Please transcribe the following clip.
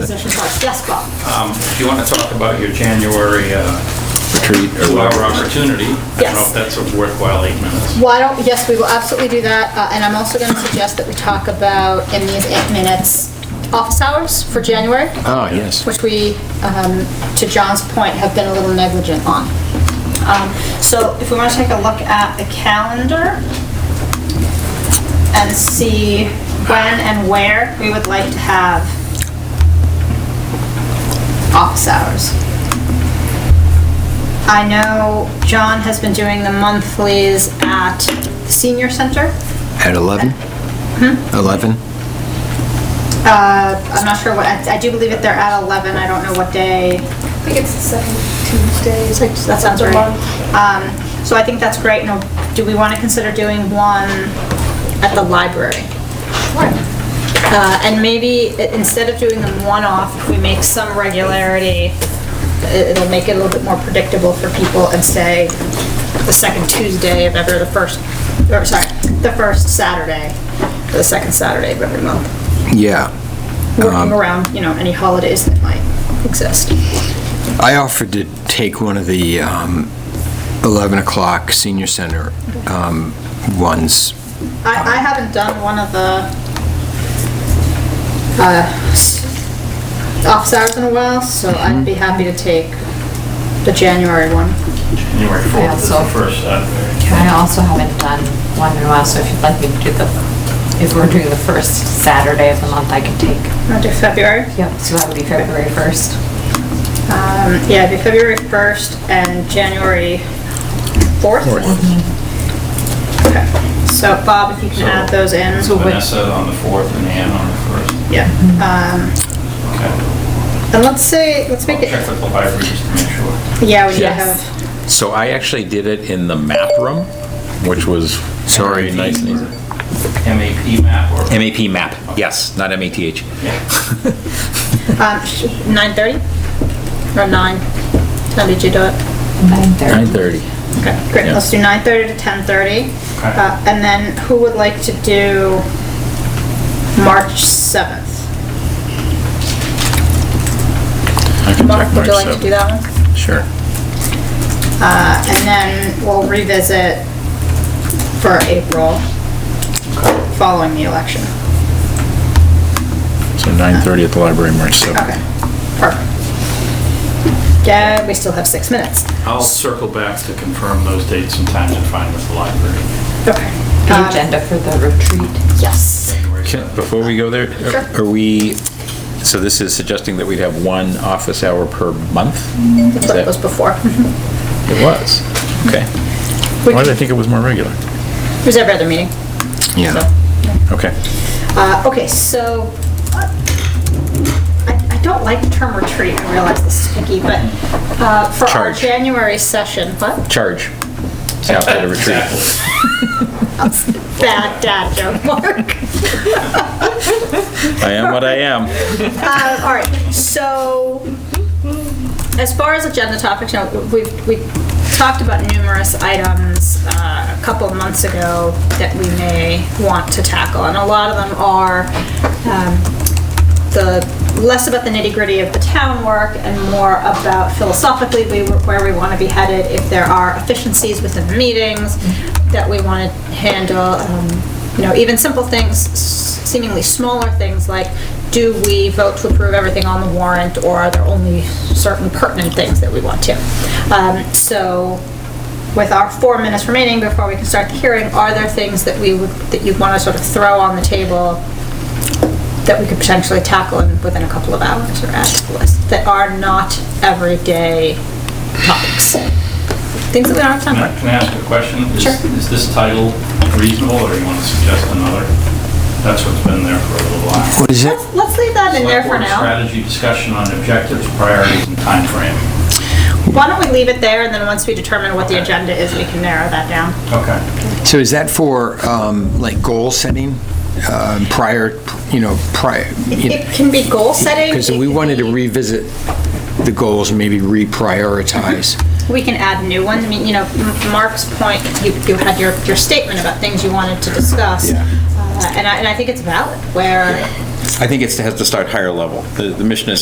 position first. Yes, Bob? If you want to talk about your January uh, retreat or two-hour whatever. opportunity, I don't know Yes. if that's a worthwhile eight minutes. Why don't, yes, we will absolutely do that, Uh, and I'm also going to suggest that we talk about in these eight minutes, office hours for January, Ah, yes. which we, um, to John's point, have been a little negligent on. Um, So if we want to take a look at the calendar and see when and where we would like to have office hours. I know John has been doing the monthlies at the senior center. At 11? Hmm? 11? Uh, I'm not sure what, I I do believe that they're at 11, I don't know what day. I think it's the second Tuesday. That sounds right. Um, So I think that's great, now, do we want to consider doing one at the library? Uh, And maybe, i- instead of doing them one-off, if we make some regularity, i- it'll make it a little bit more predictable for people and say, the second Tuesday of every, the first, or sorry, the first Saturday, or the second Saturday of every month. Yeah. Working around, you know, any holidays that might exist. I offered to take one of the um, 11 o'clock senior center um, ones. I, I haven't done one of the, uh, s- office hours uh, in a while, so I'd be happy to take the January one. January 4th is the so- first uh, Saturday. I also haven't done one in a while, so if you'd like me to do the, if we're doing the first Saturday of the month, I can take. Want to do February? Yep. So that would be February 1st. Um, yeah, it'd be February 1st and January 4th. Mm-hmm. Okay, so Bob, if you can add those in. Vanessa on the 4th and Ann on the 1st. Yeah, um, Okay. and let's say, let's I'll make check it, with the library just to make sure. yeah, we need to Yeah. have, So I actually did it in the map room, which was very nice and easy. MAP map or... MAP map, yes, not MATH. um, sh- 9:30 or 9? How did you do it? 9:30. 9:30. Okay, great, Yeah. let's do 9:30 to 10:30. Okay. Uh, And then who would like to do March 7th? I can Mark, check would you March like to do 7th. that one? Sure. Uh, And then we'll revisit for April, following the election. So 9:30 at the library, March 7th. Okay, perfect. Yeah, we still have six minutes. I'll circle back to confirm those dates and times and find with the library. Okay. The Um, agenda for the retreat. Yes. January Can- 7th. Before we go there, Sure. are we, so this is suggesting that we'd have one office hour per month? Is That was that- before. It was, okay. We Why did I can- think it was more regular? It was every other meeting. Yeah. so. Okay. Uh, Okay, so, uh, I I don't like the term retreat, I realize this is picky, but uh, for our Charge. January session, what? Charge. Staff at a retreat. Bad dad joke, Mark. I am what I am. Uh, All right, so, as far as agenda topics, you know, we we talked about numerous items uh, a couple of months ago that we may want to tackle, and a lot of them are um, the, less about the nitty-gritty of the town work and more about philosophically we- where we want to be headed, if there are efficiencies within the meetings that we want to handle, um, you know, even simple things, s- seemingly smaller things like, do we vote to approve everything on the warrant, or are there only certain pertinent things that we want to? Um, So with our four minutes remaining before we can start the hearing, are there things that we would, that you'd want to sort of throw on the table that we could potentially tackle in, within a couple of hours or add to the list that are not everyday topics. Things that we don't have Can time I for. can I ask a question? Is- Sure. Is this title reasonable, or you want to suggest another? That's what's been there for a little while. What is it? Let's, let's leave that in there for Select board now. Strategy discussion on objectives, priorities, and timeframe. Why don't we leave it there and then once we determine what the agenda is, we can narrow that down. Okay. So is that for, um, like, goal setting um, prior, you know, prior? It can be goal setting. Because we wanted to revisit the goals, maybe reprioritize. We can add new ones. I mean, you know, M- Mark's point, you, you had your, your statement about things you wanted to discuss. Yeah. Uh, And I, and I think it's valid where I think it's, it has to start higher level. The, the mission is